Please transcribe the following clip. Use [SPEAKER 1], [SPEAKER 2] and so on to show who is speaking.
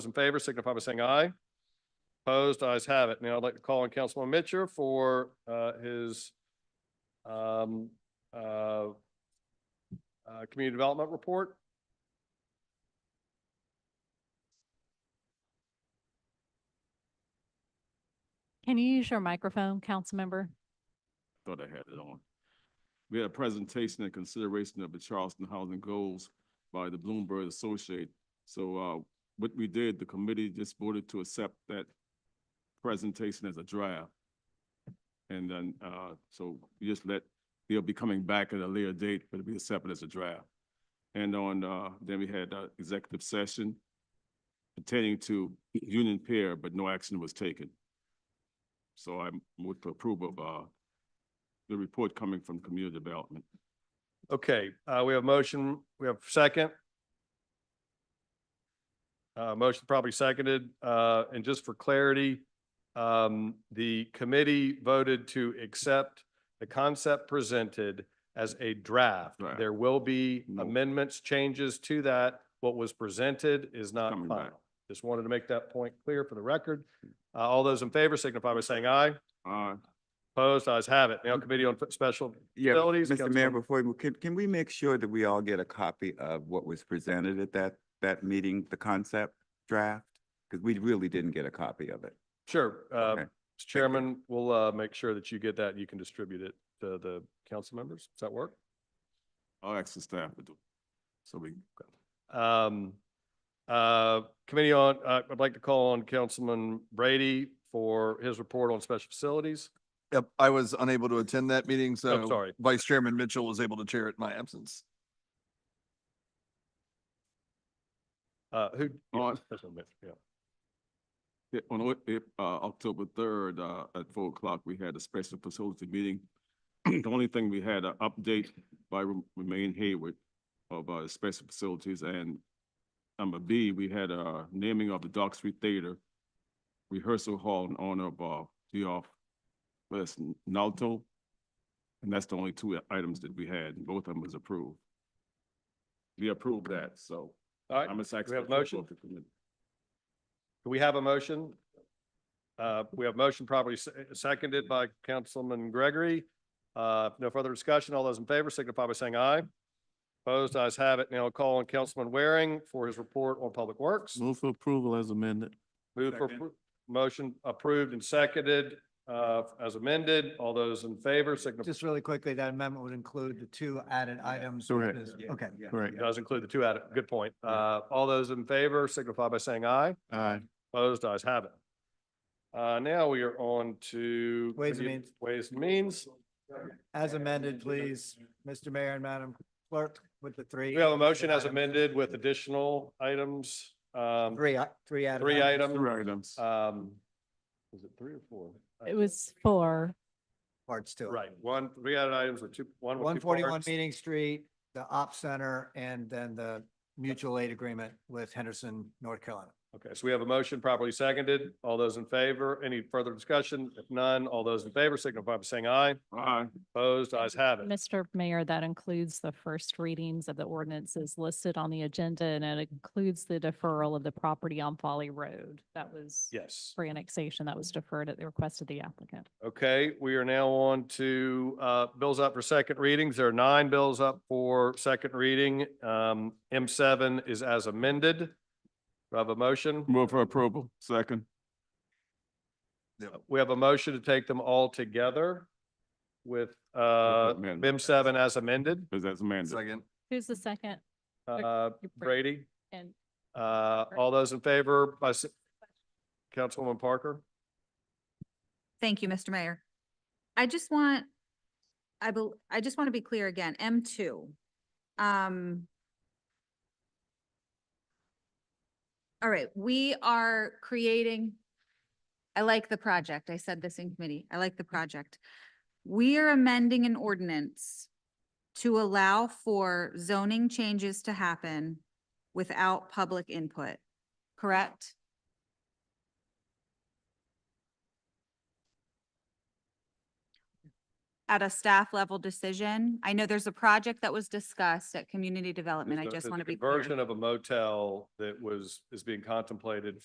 [SPEAKER 1] Those in favor signify by saying aye. Opposed, ayes have it. Now I'd like to call on Councilman Mitchell for uh, his um, uh, uh, Community Development Report.
[SPEAKER 2] Can you use your microphone, Councilmember?
[SPEAKER 3] Thought I had it on. We had a presentation and consideration of the Charleston Housing Goals by the Bloomberg Associate. So, uh, what we did, the committee just voted to accept that presentation as a draft. And then, uh, so we just let, they'll be coming back at a later date, but it'll be accepted as a draft. And on, uh, then we had, uh, executive session pertaining to union pair, but no action was taken. So I move to approve of, uh, the report coming from community development.
[SPEAKER 1] Okay, uh, we have motion, we have second. Uh, motion probably seconded, uh, and just for clarity, um, the committee voted to accept the concept presented as a draft.
[SPEAKER 3] Draft.
[SPEAKER 1] There will be
[SPEAKER 3] No.
[SPEAKER 1] amendments, changes to that. What was presented is not
[SPEAKER 3] Coming back.
[SPEAKER 1] final. Just wanted to make that point clear for the record. Uh, all those in favor signify by saying aye.
[SPEAKER 3] Uh,
[SPEAKER 1] Opposed, ayes have it. Now Committee on Special
[SPEAKER 4] Yeah,
[SPEAKER 1] facilities,
[SPEAKER 4] Mr. Mayor,
[SPEAKER 1] Councilmember-
[SPEAKER 4] before, we move- can, can we make sure that we all get a copy of what was presented at that, that meeting, the concept draft? Because we really didn't get a copy of it.
[SPEAKER 1] Sure. uh,
[SPEAKER 4] Okay.
[SPEAKER 1] Mr. Chairman, we'll uh, make sure that you get that. and You can distribute it to the council members. Does that work?
[SPEAKER 3] I'll ask the staff to do. So we,
[SPEAKER 1] Um, uh, Committee on, uh, I'd like to call on Councilman Brady for his report on special facilities.
[SPEAKER 5] Yep, I was unable to attend that meeting, so.
[SPEAKER 1] sorry.
[SPEAKER 5] Vice Chairman Mitchell was able to chair it in my absence.
[SPEAKER 1] Uh, Who? yeah,
[SPEAKER 3] On-
[SPEAKER 1] that's what I meant, yeah.
[SPEAKER 3] yeah, on, Oc- eh, uh, October third, uh, at four o'clock, we had a special facility meeting. The only thing we had an update by Rem- Remain Hayward of, uh, special facilities and number B, we had a naming of the Dock Street Theater rehearsal hall in honor of, uh, Geoff West Nalto. And that's the only two items that we had, and both of them was approved. We approved that, so.
[SPEAKER 1] All right.
[SPEAKER 3] I'm a second.
[SPEAKER 1] we have a motion? Do we have a motion? Uh, we have motion properly se- seconded by Councilman Gregory. Uh, no further discussion. All those in favor signify by saying aye. Opposed, ayes have it. Now I'll call on Councilman Waring for his report on public works.
[SPEAKER 6] Move for approval as amended.
[SPEAKER 1] Move for,
[SPEAKER 3] Second.
[SPEAKER 1] appro- motion approved and seconded, uh, as amended. All those in favor signify,
[SPEAKER 7] Just really quickly, that amendment would include the two added items. which
[SPEAKER 6] Correct.
[SPEAKER 7] is- Okay.
[SPEAKER 6] Correct.
[SPEAKER 1] does include the two added, good point. Uh, all those in favor signify by saying aye.
[SPEAKER 6] Aye.
[SPEAKER 1] Opposed, ayes have it. Uh, now we are on to.
[SPEAKER 7] Ways and
[SPEAKER 1] committee-
[SPEAKER 7] means.
[SPEAKER 1] Ways and Means.
[SPEAKER 7] As amended, please, Mr. Mayor and Madam Clerk, with the three.
[SPEAKER 1] We have a motion as
[SPEAKER 7] items.
[SPEAKER 1] amended with additional items, um,
[SPEAKER 7] Three, i- three added.
[SPEAKER 1] three items.
[SPEAKER 3] Three items.
[SPEAKER 1] Um, was it three or four?
[SPEAKER 2] It was four.
[SPEAKER 7] Parts to it.
[SPEAKER 1] Right, one, three added items with two, one with two
[SPEAKER 7] One forty-one
[SPEAKER 1] parts.
[SPEAKER 7] Meeting Street, the op center, and then the mutual aid agreement with Henderson, North Carolina.
[SPEAKER 1] Okay, so we have a motion properly seconded. All those in favor, any further discussion? If none, all those in favor signify by saying aye.
[SPEAKER 3] Aye.
[SPEAKER 1] Opposed, ayes have it.
[SPEAKER 2] Mr. Mayor, that includes the first readings of the ordinances listed on the agenda and it includes the deferral of the property on Folly Road. That was
[SPEAKER 1] Yes.
[SPEAKER 2] for annexation that was deferred at the request of the applicant.
[SPEAKER 1] Okay, we are now on to uh, bills up for second readings. There are nine bills up for second reading. Um, M seven is as amended. Do I have a motion?
[SPEAKER 3] Move for approval. Second.
[SPEAKER 1] We have a motion to take them all together with uh,
[SPEAKER 3] amendment.
[SPEAKER 1] M seven as amended.
[SPEAKER 3] Is that amended?
[SPEAKER 5] Second.
[SPEAKER 2] Who's the second?
[SPEAKER 1] Uh,
[SPEAKER 2] you bring-
[SPEAKER 1] Brady?
[SPEAKER 2] And
[SPEAKER 1] Uh, all those in favor by s- Councilwoman Parker?
[SPEAKER 8] Thank you, Mr. Mayor. I just want, I bel, I just want to be clear again, M two. Um. All right, we are creating, I like the project. I said this in committee. I like the project. We are amending an ordinance to allow for zoning changes to happen without public input, correct? at a staff level decision. I know there's a project that was discussed at community development. I
[SPEAKER 1] There's a-
[SPEAKER 8] just
[SPEAKER 1] there's
[SPEAKER 8] want
[SPEAKER 1] a
[SPEAKER 8] to be clear.
[SPEAKER 1] Conversion of a motel that was, is being contemplated